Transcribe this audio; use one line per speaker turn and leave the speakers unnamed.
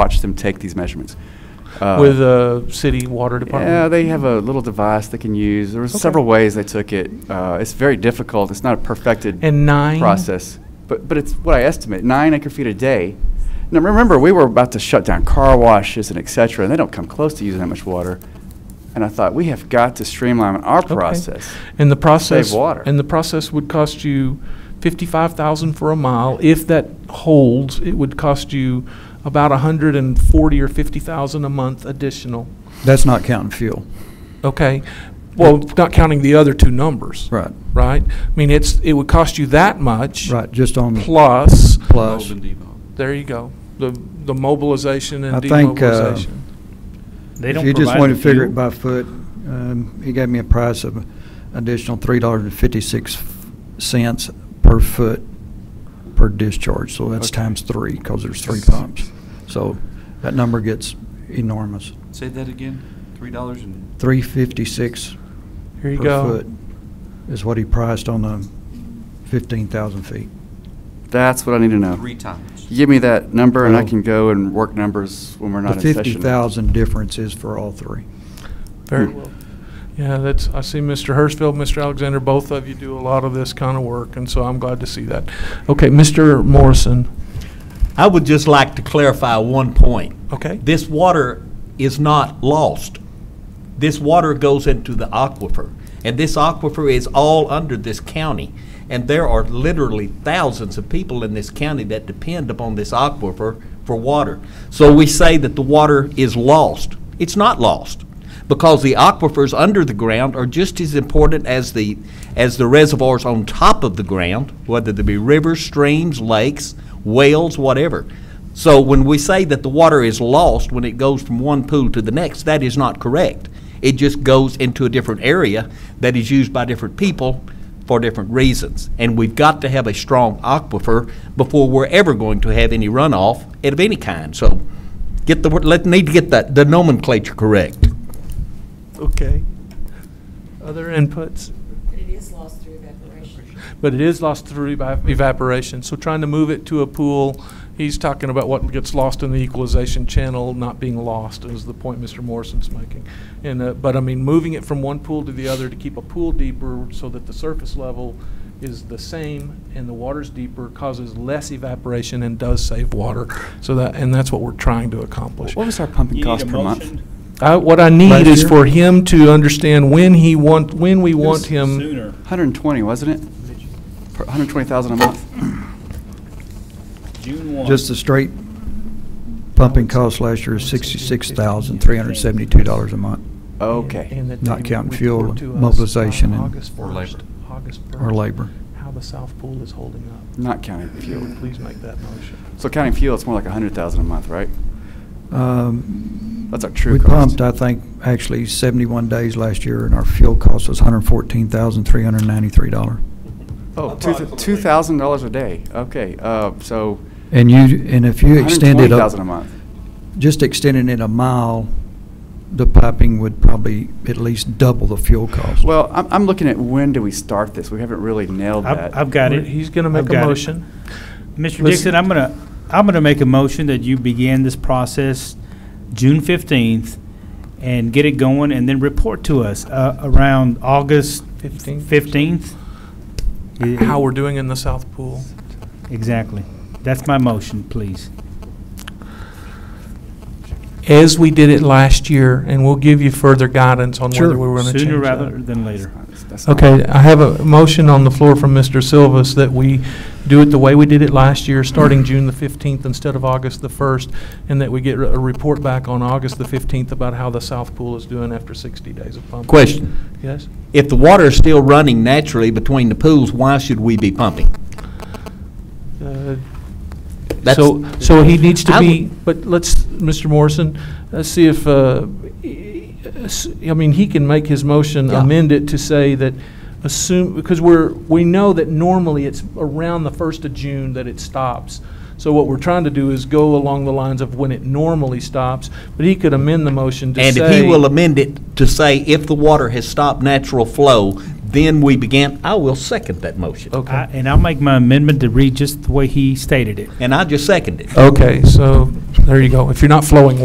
watched them take these measurements. Uh,
with the city water department?
yeah, they have a little device they can use. There was
Okay.
several ways they took it. Uh, it's very difficult. It's not a perfected
And nine?
process, but but it's what I estimate nine acre feet a day. Now remember, we were about to shut down car washes and et cetera, and they don't come close to using that much water. And I thought we have got to streamline our
Okay.
process.
And the process.
water.
And the process would cost you fifty-five thousand for a mile. If that holds, it would cost you about a hundred and forty or fifty thousand a month additional.
That's not counting fuel.
Okay? Well, not counting the other two numbers.
Right,
Right? I mean, it's, it would cost you that much.
right, just on the
Plus,
plus.
there you go, the, the mobilization
I
and
think, uh,
demobilization.
They
If
don't
you just
provide
want to
the
figure it
fuel.
by foot, um, he gave me a price of additional three dollars and fifty-six cents per foot per discharge, so that's
Okay.
times three, because there's three pumps. So that number gets enormous,
Say that again, three dollars and,
three fifty-six
Here
per
you go.
foot is what he priced on the fifteen thousand feet.
That's what I need to know.
three times.
You give me that number, and I
Oh.
Well-
can go and work numbers when we're not
The
in session.
fifty thousand difference is for all three.
Very well. Yeah, that's, I see Mr. Hirschfeld, Mr. Alexander, both of you do a lot of this kind of work, and so I'm glad to see that. Okay, Mr. Morrison,
I would just like to clarify one point.
okay?
This water is not lost. This water goes into the aquifer, and this aquifer is all under this county. And there are literally thousands of people in this county that depend upon this aquifer for water. So we say that the water is lost. It's not lost, because the aquifers under the ground are just as important as the, as the reservoirs on top of the ground, whether they be rivers, streams, lakes, wells, whatever. So when we say that the water is lost when it goes from one pool to the next, that is not correct. It just goes into a different area that is used by different people for different reasons. And we've got to have a strong aquifer before we're ever going to have any runoff of any kind. So get the, word- let, need to get that, the nomenclature correct.
Okay. Other inputs?
But it is lost through evaporation.
But it is lost through eva- evaporation, so trying to move it to a pool, he's talking about what gets lost in the equalization channel not being lost, is the point Mr. Morrison's making. And, uh, but I mean, moving it from one pool to the other to keep a pool deeper so that the surface level is the same and the water's deeper causes less evaporation and does save water. So that, and that's what we're trying to accomplish.
What was our pumping
You need
cost
a
per month?
motion
I, what I need
Last
is
year?
for him to understand when he want, when we want him.
Sooner.
120, wasn't it? Per- 120,000 a month.
June one.
Just the straight pumping cost last year is sixty-six thousand, three hundred and seventy-two dollars a month,
Okay.
And that
Not
they
counting
report
fuel,
to us
mobilization,
on
and-
August
Or
1st,
labor.
August
or
1st,
labor.
How the South Pool is holding up.
Not counting
If you
fuel.
would please make that motion.
So counting fuel, it's more like 100,000 a month, right?
Um,
That's our true
We
cost.
pumped, I think, actually seventy-one days last year, and our fuel cost was hundred and fourteen thousand, three hundred and ninety-three dollar.
Oh, two th- $2,000 a day. Okay, uh, so
And you, and if you extended, up-
120,000 a month.
just extending it a mile, the piping would probably at least double the fuel cost.
Well, I'm, I'm looking at when do we start this? We haven't really nailed
I've,
that.
I've got it.
He's going to
I've
make a
got it.
motion.
Mr.
Let's-
Dixon, I'm gonna, I'm gonna make a motion that you begin this process June fifteenth and get it going and then report to us, uh, around August
15th.
fifteenth.
How we're doing in the South Pool.
Exactly. That's my motion, please.
As we did it last year, and we'll give you further guidance on
Sure.
whether we were going to change that.
Sooner rather than later.
That's not-
Okay, I have a motion on the floor from Mr. Silvas that we do it the way we did it last year, starting June the 15th instead of August the 1st, and that we get a report back on August the 15th about how the South Pool is doing after 60 days of pumping.
Question.
Yes?
If the water is still running naturally between the pools, why should we be pumping?
Uh,
That's-
So, so he needs to
I
be,
would-
but let's, Mr. Morrison, let's see if, uh, s- I mean, he can make his motion,
Yeah.
amend it to say that assume, because we're, we know that normally it's around the first of June that it stops. So what we're trying to do is go along the lines of when it normally stops, but he could amend the motion to say.
And if he will amend it to say if the water has stopped natural flow, then we began, I will second that motion.
Okay.
I- And I'll make my amendment to read just the way he stated it.
And I just seconded it.
Okay, so there you go. If you're not flowing